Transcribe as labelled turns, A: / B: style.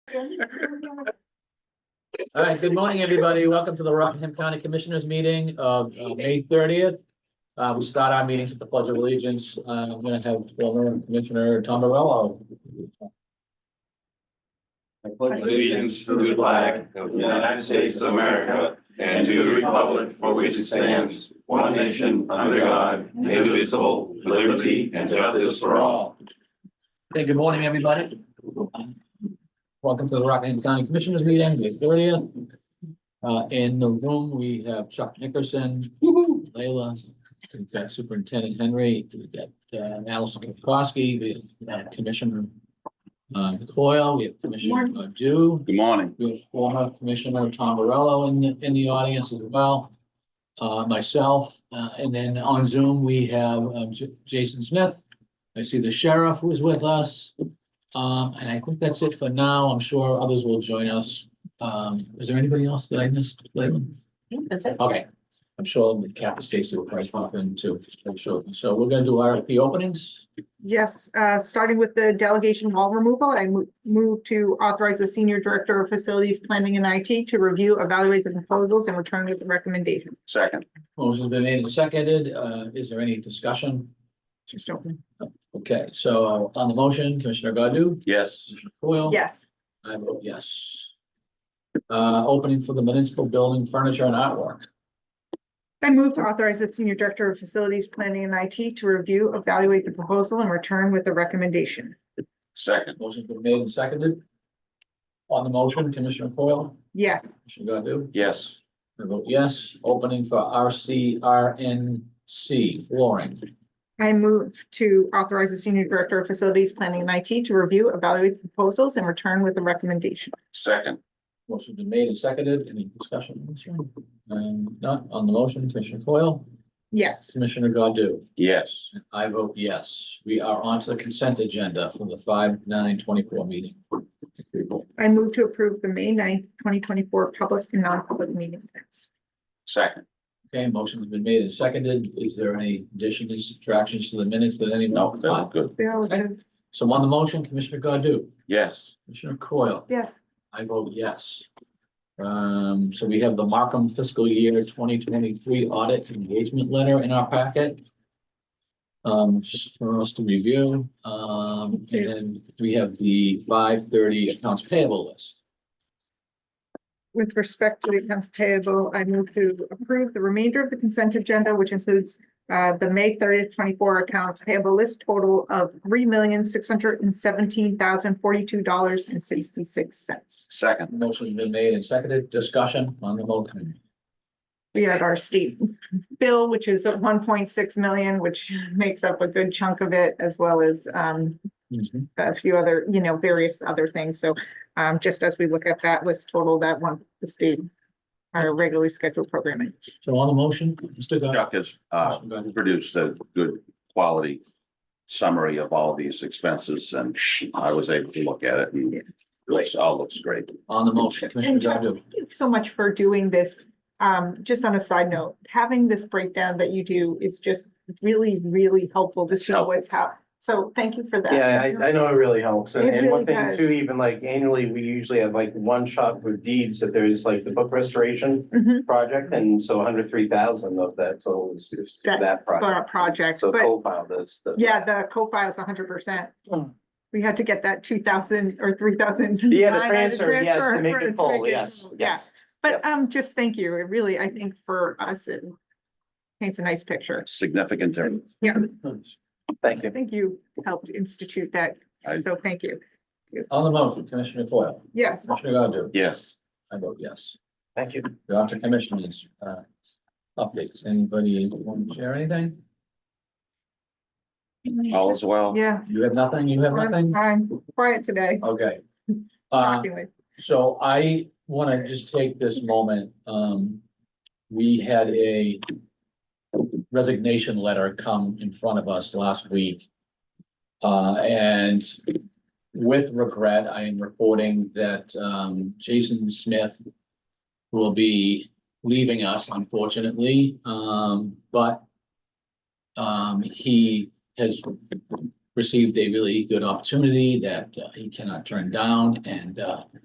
A: All right, good morning, everybody. Welcome to the Rockingham County Commissioners Meeting of uh, May thirtieth. Uh, we start our meetings with the Pledge of Allegiance. Uh, I'm gonna have former Commissioner Tom Morello.
B: Allegiance to the flag of the United States of America and to the republic for which it stands, one nation under God, indivisible, with liberty and justice for all.
A: Hey, good morning, everybody. Welcome to the Rockingham County Commissioners Meeting, May thirtieth. Uh, in the room, we have Chuck Nickerson, Layla, we've got Superintendent Henry, we've got uh, Allison Kapkowski, we have Commissioner uh, Coyle, we have Commissioner uh, Dew.
B: Good morning.
A: We have former Commissioner Tom Morello in, the- in the audience as well. Uh, myself, uh, and then on Zoom, we have um, J- Jason Smith. I see the sheriff who is with us. Um, and I think that's it for now. I'm sure others will join us. Um, is there anybody else that I missed? Leyland?
C: That's it.
A: Okay, I'm sure the cap Stacy will probably pop in too. I'm sure. So we're gonna do RFP openings.
C: Yes, uh, starting with the delegation hall removal, I mo- move to authorize the senior director of facilities planning and IT to review, evaluate the proposals and return with the recommendation.
B: Second.
A: Motion's been made and seconded. Uh, is there any discussion?
C: Just open.
A: Okay, so uh, on the motion, Commissioner Godu?
B: Yes.
A: Commissioner Foil?
C: Yes,
A: I vote yes. Uh, opening for the municipal building furniture and artwork.
C: I move to authorize the senior director of facilities planning and IT to review, evaluate the proposal and return with the recommendation.
B: Second.
A: Motion's been made and seconded. On the motion, Commissioner Coyle,
C: Yes,
A: Commissioner Godu?
B: Yes.
A: I vote yes. Opening for RCRNC flooring.
C: I move to authorize the senior director of facilities planning and IT to review, evaluate the proposals and return with the recommendation.
B: Second.
A: Motion's been made and seconded. Any discussion? on this one? Um, not on the motion, Commissioner Coyle,
C: Yes,
A: Commissioner Godu?
B: Yes.
A: I vote yes. We are on to the consent agenda for the five nine twenty-four meeting.
C: I move to approve the May 9th, twenty twenty-four public and non-public meeting minutes.
B: Second.
A: Okay, motion's been made and seconded. Is there any additions, subtractions to the minutes that anyone?
B: No, no, good.
C: Bill,
A: Okay. So on the motion, Commissioner Godu,
B: Yes.
A: Commissioner Coyle,
C: yes,
A: I vote yes. Um, so we have the Markham fiscal year twenty twenty-three audit engagement letter in our packet. Um, just for us to review, um, and then we have the five thirty accounts payable list.
C: with respect to the accounts payable, I move to approve the remainder of the consent agenda, which includes uh, the May thirtieth, twenty-four accounts payable list total of three million, six hundred and seventeen thousand, forty-two dollars and sixty-six cents.
B: Second.
A: Motion's been made and seconded. Discussion on the motion.
C: We had our state bill, which is at one point six million, which makes up a good chunk of it, as well as um, a few other, you know, various other things. So um, just as we look at that list total, that one, the state, our regularly scheduled programming.
A: So on the motion, Mr. Godu.
B: Chuck has uh, produced a good quality summary of all these expenses and I was able to look at it and it looks- all looks great.
A: On the motion, Commissioner
C: And Chuck-
A: Godu.
C: Thank you so much for doing this. Um, just on a side note, having this breakdown that you do is just really, really helpful to
B: It's
C: see what's happening. So thank you for that.
D: Yeah, I, I know it really helps. And,
C: It
D: and
C: really
D: one thing
C: does.
D: too, even like annually, we usually have like one shot for deeds that there's like the book restoration
C: Mhm,
D: project. And so hundred three thousand of that, so it's, it's
C: That-
D: that
C: For our
D: project.
C: project,
D: So
C: but
D: co-filed those. the-
C: yeah, the co-file's hundred percent.
D: Mm.
C: We had to get that two thousand or three thousand.
D: Yeah, the transfer, yes, to make it full, yes,
C: Yeah,
D: yes.
C: but um, just thank you. It really, I think for us, it paints a nice picture.
B: Significant difference.
C: Yeah,
D: Thank
C: I
D: you.
C: think you helped institute that.
B: I-
C: So thank you.
A: On the motion, Commissioner Foil,
C: Yes.
A: Commissioner Godu,
B: Yes.
A: I vote yes.
D: Thank you.
A: We're on to commissioners, uh, updates. Anybody want to share anything?
B: All is well.
C: Yeah.
A: You have nothing? You have nothing?
C: I'm quiet today,
A: Okay. Uh,
C: shockingly.
A: so I want to just take this moment, um, we had a resignation letter come in front of us last week. Uh, and with regret, I am reporting that, um, Jason Smith will be leaving us unfortunately, um, but um, he has received a really good opportunity that uh, he cannot turn down and, uh,